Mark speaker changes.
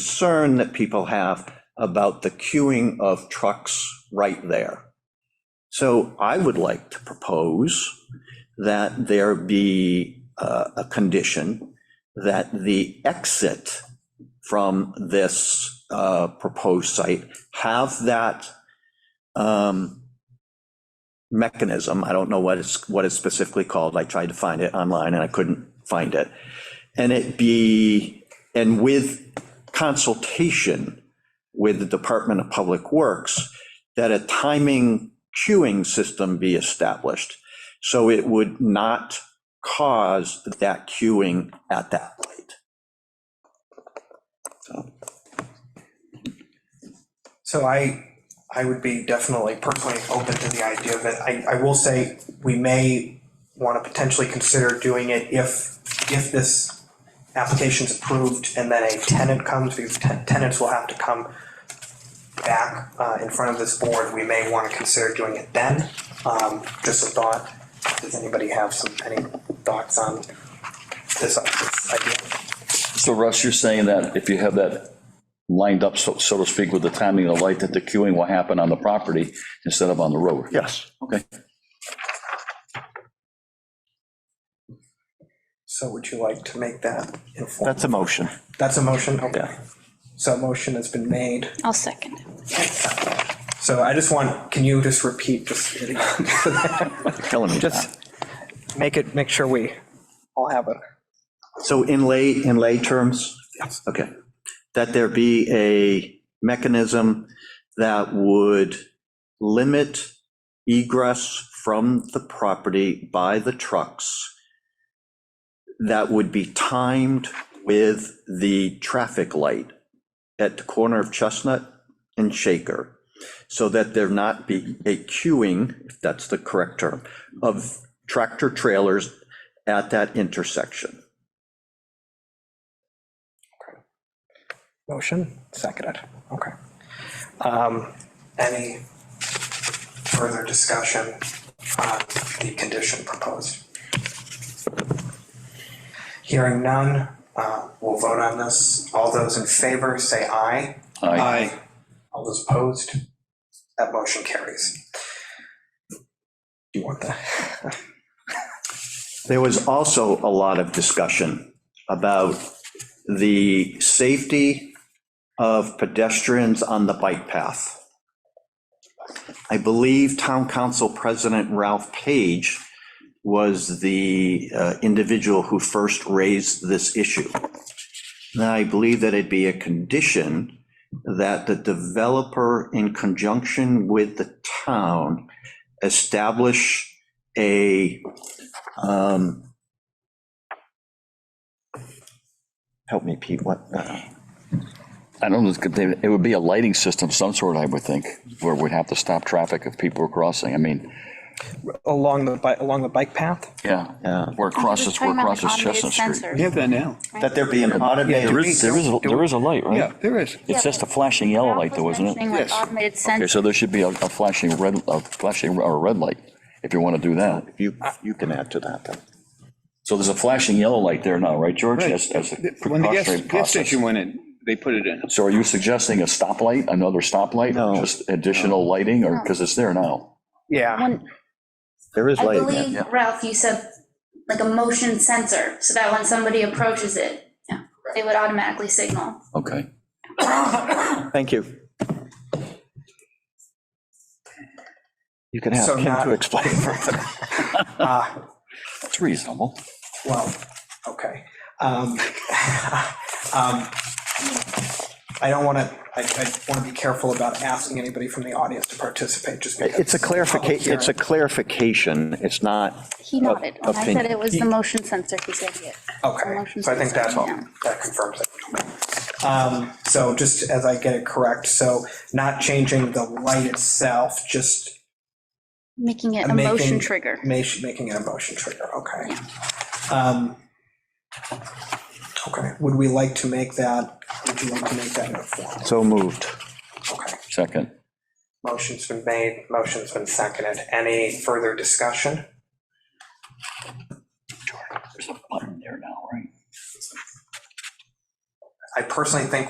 Speaker 1: concern that people have about the queuing of trucks right there. So I would like to propose that there be uh, a condition that the exit from this uh, proposed site have that um, mechanism, I don't know what it's, what it's specifically called, I tried to find it online and I couldn't find it. And it be, and with consultation with the Department of Public Works, that a timing queuing system be established. So it would not cause that queuing at that light. So,
Speaker 2: So I, I would be definitely personally open to the idea of it. I, I will say, we may want to potentially consider doing it if, if this application's approved and then a tenant comes, these ten- tenants will have to come back uh, in front of this board, we may want to consider doing it then. Um, Just a thought, does anybody have some, any thoughts on this this idea?
Speaker 3: So Russ, you're saying that if you have that lined up, so so to speak, with the timing of the light, that the queuing will happen on the property instead of on the road?
Speaker 1: yes,
Speaker 3: Okay.
Speaker 2: So would you like to make that informal?
Speaker 1: that's a motion.
Speaker 2: That's a motion, okay.
Speaker 1: Yeah.
Speaker 2: So a motion has been made.
Speaker 4: I'll second.
Speaker 2: So I just want, can you just repeat, just
Speaker 1: Killing me.
Speaker 2: Just- make it, make sure we all have it.
Speaker 1: So in lay, in lay terms? Yes. Okay. That there be a mechanism that would limit egress from the property by the trucks that would be timed with the traffic light at the corner of Chestnut and Shaker, so that there not be a queuing, if that's the correct term, of tractor trailers at that intersection.
Speaker 2: Motion, seconded, okay. Um, Any further discussion on the condition proposed? Hearing none, uh, we'll vote on this. All those in favor, say aye.
Speaker 3: Aye.
Speaker 2: All those opposed? That motion carries. Do you want that?
Speaker 1: There was also a lot of discussion about the safety of pedestrians on the bike path. I believe Town Council President Ralph Page was the uh, individual who first raised this issue. Now, I believe that it'd be a condition that the developer, in conjunction with the town, establish a um Help me, Pete, what, uh,
Speaker 3: I don't know, it could be- it would be a lighting system of some sort, I would think, where we'd have to stop traffic if people were crossing. I mean,
Speaker 2: Along the, bi- along the bike path?
Speaker 3: yeah,
Speaker 1: Yeah.
Speaker 3: where it crosses, where it crosses Chestnut Street.
Speaker 5: We have that now.
Speaker 1: that there be an automated.
Speaker 3: There is, there is, a- there is a light,
Speaker 5: Yeah,
Speaker 3: right?
Speaker 5: there is.
Speaker 3: It's just a flashing yellow light though, isn't it?
Speaker 5: Yes.
Speaker 4: Automated
Speaker 3: Okay,
Speaker 4: sensors.
Speaker 3: so there should be a a flashing red, a flashing or a red light, if you want to do that.
Speaker 1: You, you can add to that, then.
Speaker 3: So there's a flashing yellow light there now, right, George?
Speaker 5: Right.
Speaker 3: As, as a
Speaker 5: When the gas,
Speaker 3: precautionary
Speaker 5: gas
Speaker 3: process.
Speaker 5: station went in, they put it in.
Speaker 3: So are you suggesting a stoplight, another stoplight?
Speaker 1: No.
Speaker 3: Just additional lighting or, because it's there now?
Speaker 2: Yeah.
Speaker 4: One-
Speaker 1: There is
Speaker 6: I
Speaker 1: light.
Speaker 6: believe,
Speaker 3: yeah.
Speaker 6: Ralph, you said like a motion sensor, so that when somebody approaches it, yeah, they would automatically signal.
Speaker 3: Okay.
Speaker 1: Thank you. You can have
Speaker 2: So
Speaker 1: Kim
Speaker 2: not-
Speaker 1: to explain further.
Speaker 2: Uh,
Speaker 3: That's reasonable.
Speaker 2: Well, okay. Um, um, I don't want to, I, I want to be careful about asking anybody from the audience to participate, just because.
Speaker 1: It's a
Speaker 2: Oh,
Speaker 1: clarification, it's a
Speaker 2: Public
Speaker 1: clarification, it's not,
Speaker 4: He nodded. When I said
Speaker 1: Opinion.
Speaker 4: it was the motion sensor, he said yes.
Speaker 2: hearing. Okay, so I think that, that confirms it. Um, So just as I get it correct, so not changing the light itself, just
Speaker 4: Making it a
Speaker 2: I'm making-
Speaker 4: motion trigger.
Speaker 2: ma- making it a motion trigger, okay. Um, Okay, would we like to make that, would you like to make that in a form?
Speaker 1: so moved.
Speaker 2: Okay.
Speaker 3: Second.
Speaker 2: Motion's been made, motion's been seconded. Any further discussion?
Speaker 3: There's a button there now, right?
Speaker 2: I personally think